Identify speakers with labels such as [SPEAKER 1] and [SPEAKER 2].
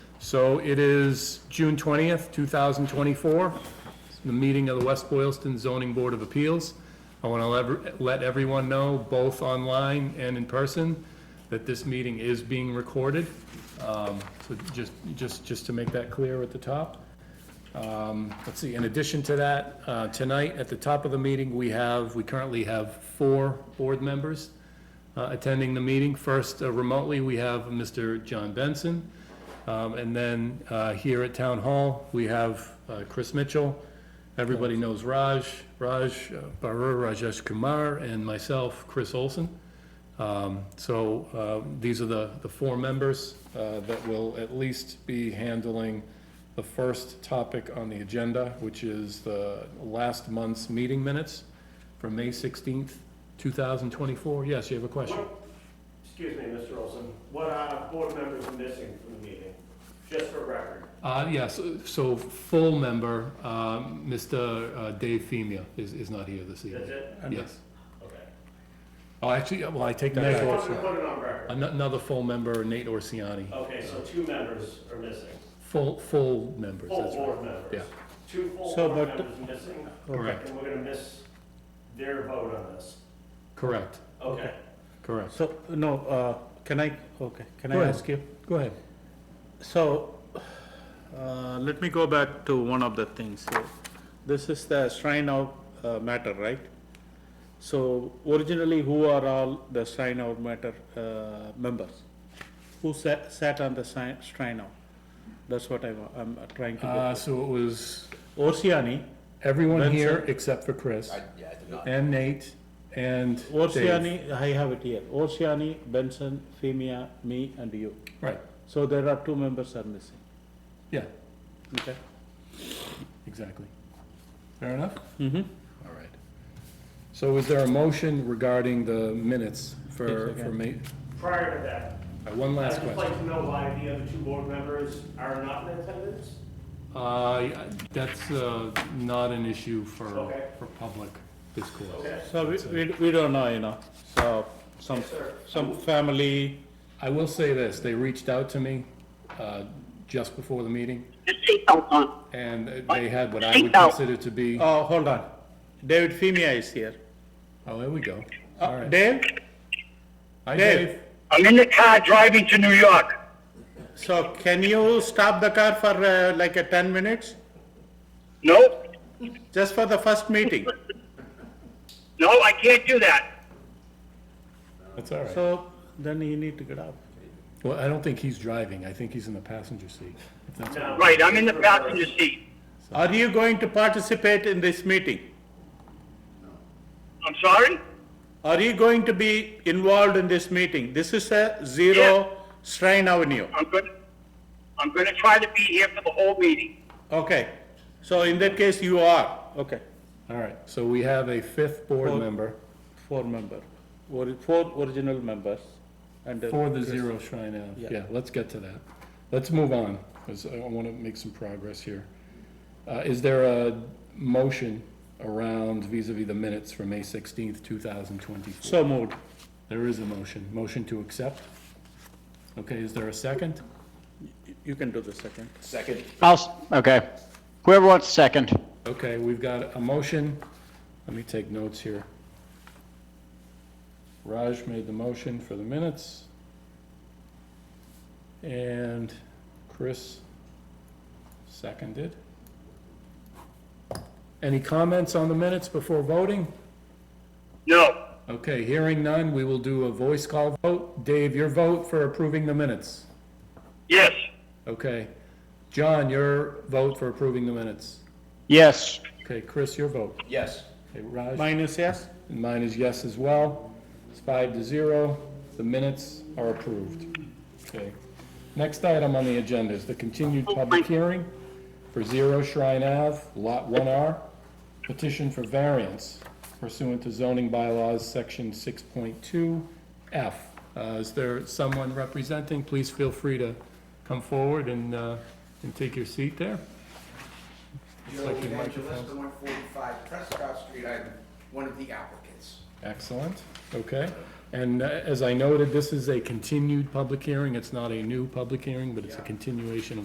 [SPEAKER 1] So it is June 20th, 2024, the meeting of the West Boylston Zoning Board of Appeals. I want to let everyone know, both online and in person, that this meeting is being recorded. Um, So just, just, just to make that clear at the top. Um, Let's see, in addition to that, uh, tonight, at the top of the meeting, we have, we currently have four board members uh, attending the meeting. First, uh, remotely, we have Mr. John Benson. Um, And then uh, here at Town Hall, we have uh, Chris Mitchell. Everybody knows Raj, Raj uh, Barur, Rajesh Kumar, and myself, Chris Olson. Um, So uh, these are the, the four members uh, that will at least be handling the first topic on the agenda, which is the last month's meeting minutes from May 16th, 2024. Yes, you have a question?
[SPEAKER 2] Excuse me, Mr. Olson, what are board members missing from the meeting, just for record?
[SPEAKER 1] Uh, yes, so full member, um, Mr. uh, Dave Femia is, is not here this
[SPEAKER 2] That's
[SPEAKER 1] evening.
[SPEAKER 2] it?
[SPEAKER 1] Yes.
[SPEAKER 2] Okay.
[SPEAKER 1] Oh, actually, well, I take that
[SPEAKER 2] Just
[SPEAKER 1] back.
[SPEAKER 2] wanted to put it on record.
[SPEAKER 1] Ano- Another full member, Nate Orsiani,
[SPEAKER 2] Okay, so two members are missing,
[SPEAKER 1] full, full members,
[SPEAKER 2] full
[SPEAKER 1] that's right.
[SPEAKER 2] board members.
[SPEAKER 1] yeah.
[SPEAKER 2] Two full
[SPEAKER 3] So,
[SPEAKER 2] board
[SPEAKER 3] but-
[SPEAKER 2] members missing,
[SPEAKER 1] Correct,
[SPEAKER 2] and we're gonna miss their vote on this.
[SPEAKER 1] correct,
[SPEAKER 2] Okay.
[SPEAKER 1] correct.
[SPEAKER 3] So, no, uh, can I, okay, can
[SPEAKER 1] Go
[SPEAKER 3] I
[SPEAKER 1] ahead.
[SPEAKER 3] ask you?
[SPEAKER 1] Go ahead.
[SPEAKER 3] So, uh, let me go back to one of the things. So, This is the Shrine Hour uh, matter, right? So originally, who are all the Shrine Hour matter uh, members? Who sat, sat on the Shri- Shrine Hour? That's what I'm, I'm trying
[SPEAKER 1] Uh,
[SPEAKER 3] to
[SPEAKER 1] so it was
[SPEAKER 3] get. Orsiani,
[SPEAKER 1] everyone
[SPEAKER 3] Benson.
[SPEAKER 1] here except for Chris,
[SPEAKER 4] Yeah, I did not.
[SPEAKER 1] and Nate, and Dave.
[SPEAKER 3] Orsiani, I have it here. Orsiani, Benson, Femia, me, and you.
[SPEAKER 1] Right,
[SPEAKER 3] So there are two members are missing,
[SPEAKER 1] yeah,
[SPEAKER 3] okay?
[SPEAKER 1] exactly. Fair enough?
[SPEAKER 3] Mm-hmm.
[SPEAKER 1] All right. So is there a motion regarding the minutes for,
[SPEAKER 3] Yes, I
[SPEAKER 1] for
[SPEAKER 3] can.
[SPEAKER 1] me?
[SPEAKER 2] Prior to that,
[SPEAKER 1] All right, Uh, One last
[SPEAKER 2] I'd just like
[SPEAKER 1] question.
[SPEAKER 2] to know why the other two board members are not in attendance?
[SPEAKER 1] Uh, yeah, that's, uh, not an issue for,
[SPEAKER 2] Okay.
[SPEAKER 1] for public discourse.
[SPEAKER 2] Okay,
[SPEAKER 3] So we, we, we don't know, you know, so some,
[SPEAKER 2] Yes, sir.
[SPEAKER 3] some family,
[SPEAKER 1] I will say this, they reached out to me, uh, just before the meeting,
[SPEAKER 5] The seatbelt on.
[SPEAKER 1] and they had what I would
[SPEAKER 5] Seatbelt.
[SPEAKER 1] consider to be,
[SPEAKER 3] oh, hold on. David Femia is here.
[SPEAKER 1] oh, there we go.
[SPEAKER 3] Uh,
[SPEAKER 1] All right.
[SPEAKER 3] Dave,
[SPEAKER 1] Hi,
[SPEAKER 3] Dave.
[SPEAKER 1] Dave.
[SPEAKER 6] I'm in the car driving to New York.
[SPEAKER 3] so can you stop the car for uh, like a ten minutes?
[SPEAKER 6] No,
[SPEAKER 3] Just for the first meeting?
[SPEAKER 6] no, I can't do that.
[SPEAKER 1] That's all right.
[SPEAKER 3] So then you need to get up.
[SPEAKER 1] Well, I don't think he's driving, I think he's in the passenger seat. if that's-
[SPEAKER 2] No.
[SPEAKER 6] Right, I'm in the passenger seat.
[SPEAKER 3] Are you going to participate in this meeting?
[SPEAKER 6] I'm sorry?
[SPEAKER 3] Are you going to be involved in this meeting? This is a zero Shrine Avenue.
[SPEAKER 6] I'm gonna, I'm gonna try to be here for the whole meeting.
[SPEAKER 3] Okay, so in that case, you are, okay.
[SPEAKER 1] All right, so we have a fifth board
[SPEAKER 3] Well-
[SPEAKER 1] member
[SPEAKER 3] Four member, Ori- four original members and. uh,
[SPEAKER 1] for the
[SPEAKER 3] Chris.
[SPEAKER 1] Zero Shrine Ave.
[SPEAKER 3] Yeah.
[SPEAKER 1] Yeah, let's get to that. Let's move on, because I want to make some progress here. Uh, Is there a motion around vis-à-vis the minutes for May 16th, 2024?
[SPEAKER 3] So moved.
[SPEAKER 1] There is a motion. Motion to accept? Okay, is there a second?
[SPEAKER 3] You can do the second.
[SPEAKER 4] Second,
[SPEAKER 7] I'll, s- okay. Whoever wants second.
[SPEAKER 1] Okay, we've got a motion. Let me take notes here. Raj made the motion for the minutes. And Chris seconded. Any comments on the minutes before voting?
[SPEAKER 6] No,
[SPEAKER 1] Okay, hearing none, we will do a voice call vote. Dave, your vote for approving the minutes.
[SPEAKER 6] yes,
[SPEAKER 1] Okay. John, your vote for approving the minutes.
[SPEAKER 7] Yes.
[SPEAKER 1] Okay, Chris, your vote.
[SPEAKER 4] yes.
[SPEAKER 1] Okay, Raj?
[SPEAKER 3] Minus yes?
[SPEAKER 1] And mine is yes as well. It's five to zero. The minutes are approved. Okay. Next item on the agenda is the continued public hearing for Zero Shrine Ave, Lot 1R, petition for variance pursuant to zoning bylaws, Section 6.2F. Uh, Is there someone representing? Please feel free to come forward and, uh, and take your seat there.
[SPEAKER 8] Joe
[SPEAKER 1] like your
[SPEAKER 8] Evangelista,
[SPEAKER 1] microphone.
[SPEAKER 8] one forty-five Prescott Street, I'm one of the applicants.
[SPEAKER 1] Excellent, okay. And uh, as I noted, this is a continued public hearing, it's not a new public hearing, but it's a continuation of